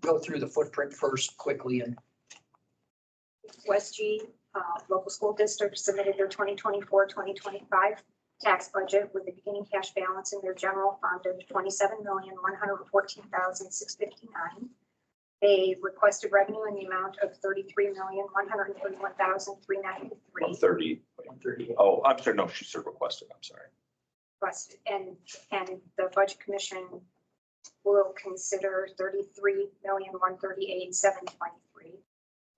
go through the footprint first quickly and West G, uh, local school district submitted their 2024, 2025 tax budget with a beginning cash balance in their general fund of 27114659 They requested revenue in the amount of 33131393 130. one thirty. Oh, I'm sorry, no, she said requested, I'm sorry. requested, and, and the budget commission will consider thirty-three million, one thirty-eight, seven twenty-three.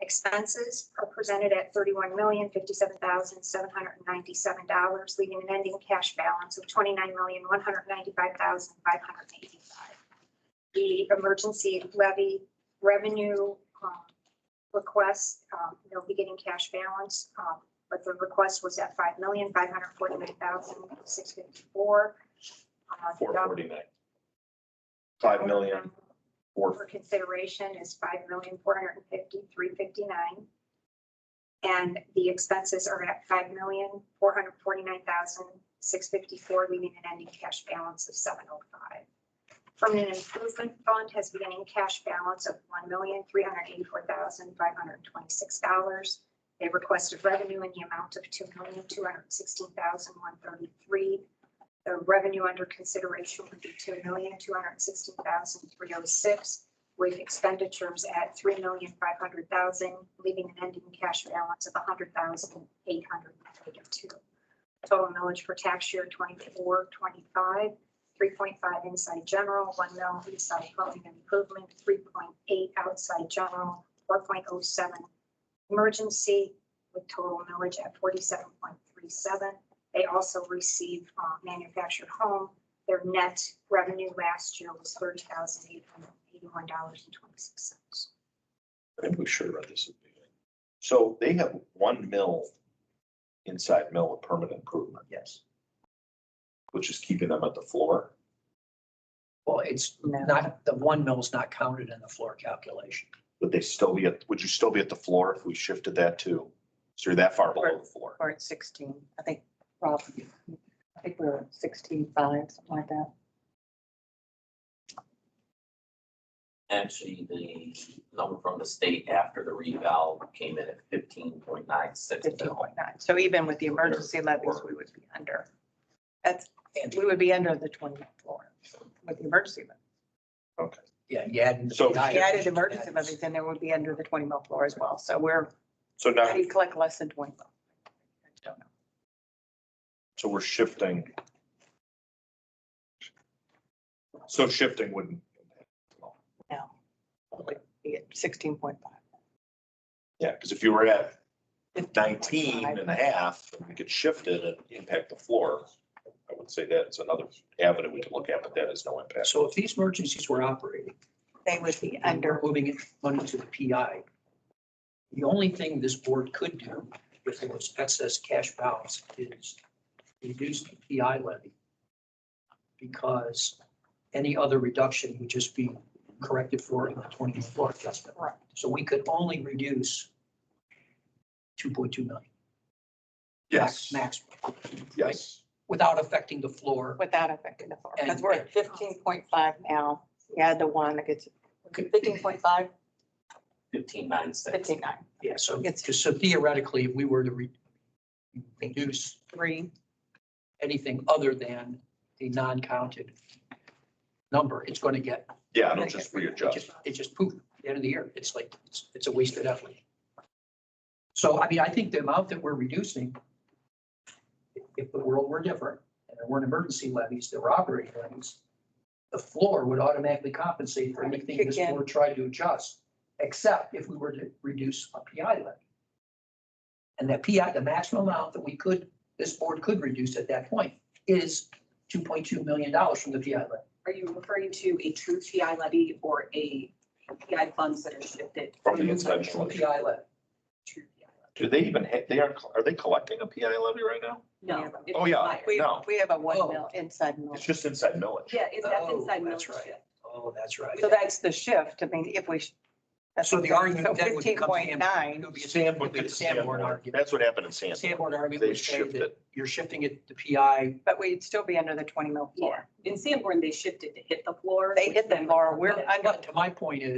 Expenses are presented at thirty-one million, fifty-seven thousand, seven hundred and ninety-seven dollars, leaving an ending cash balance of twenty-nine million, one hundred and ninety-five thousand, five hundred and eighty-five. The emergency levy revenue, um, request, um, no beginning cash balance, um, but the request was at five million, five hundred forty-nine thousand, six fifty-four. Uh, Four forty-nine. Five million, For four, consideration is five million, four hundred and fifty, three fifty-nine. And the expenses are at five million, four hundred forty-nine thousand, six fifty-four, leaving an ending cash balance of seven oh five. Permanent improvement fund has beginning cash balance of one million, three hundred eighty-four thousand, five hundred twenty-six dollars. They requested revenue in the amount of two million, two hundred sixteen thousand, one thirty-three. The revenue under consideration would be two million, two hundred sixteen thousand, three oh six, with expenditures at three million, five hundred thousand, leaving an ending cash balance of hundred thousand, eight hundred eighty-two. Total millage for tax year 24-25. three point five inside general, one mil inside dwelling improvement, three point eight outside general, four point oh seven emergency, with total millage at forty-seven point three seven. They also receive uh, manufactured home. Their net revenue last year was thirty thousand eight hundred eighty-one dollars and twenty-six cents. and we should read this. at the beginning. So they have one mill inside mill of permanent improvement, Yes. which is keeping them at the floor. Well, it's not, the one mill's not counted in the floor calculation. Would they still be at, would you still be at the floor if we shifted that to, so you're that far below the floor? Or at sixteen, I think, Rob, I think we were sixteen five, something like that. Actually, the number from the state after the reval came in at fifteen point nine six. Fifteen point nine. So even with the emergency levies, we would be under. That's, And we would be under the twenty floor with the emergency levy. yeah, you add. So- If we added emergency levies, then there would be under the twenty mil floor as well. So we're, So now, we collect less than twenty. mil. I don't know. so we're shifting. So shifting wouldn't. It would Be at sixteen point five. Yeah, because if you were at 19 and a half, and we could shift it and impact the floor. I would say that's another avenue we could look at, but that is no impact. So if these emergencies were operating, They would be and we're under, moving it money to the PI. The only thing this board could do if there was excess cash balance is reduce the PI levy. Because any other reduction would just be corrected for in the twenty floor adjustment. Right. So we could only reduce two point two million. max- Maximum, Yes. without affecting the floor. without affecting the floor, because we're at And- fifteen point five now. Yeah, the one that gets Okay. fifteen point five, Fifteen nine six. fifteen nine, Yeah, so, It's- just so theoretically, if we were to re- reduce three. anything other than the non-counted number, it's going to get, Yeah, it'll just readjust. it just poof, at the end of the year. It's like, it's, it's a wasted effort. So, I mean, I think the amount that we're reducing, if- if the world were different and there weren't emergency levies, there were operating levies, the floor would automatically compensate for anything this Again. board tried to adjust, except if we were to reduce a PI levy. And that PI, the maximum amount that we could, this board could reduce at that point is two point two million dollars from the PI levy. Are you referring to a true TI levy or a TI funds that are shifted? From the inside. From the PI levy. to TI? Do they even, ha- they are, are they collecting a PI levy right now? No. it's Oh, yeah. higher. We, No. we have a one Oh. mil inside mil. It's just inside millage. Yeah, it's that's Oh, inside that's military. right. Oh, that's right. So that's the shift. I mean, if we. sh- that's So the argument so then would become Sam- 15.9, It'll be a Sanborn, it's a Sanborn argument. That's what happened in Sanborn. Sanborn argument They would say shifted. that you're shifting it to PI. but we'd still be under the twenty mil floor. In Sanborn, they shifted to hit the floor. They which hit the then- floor. We're But- under but To my point is.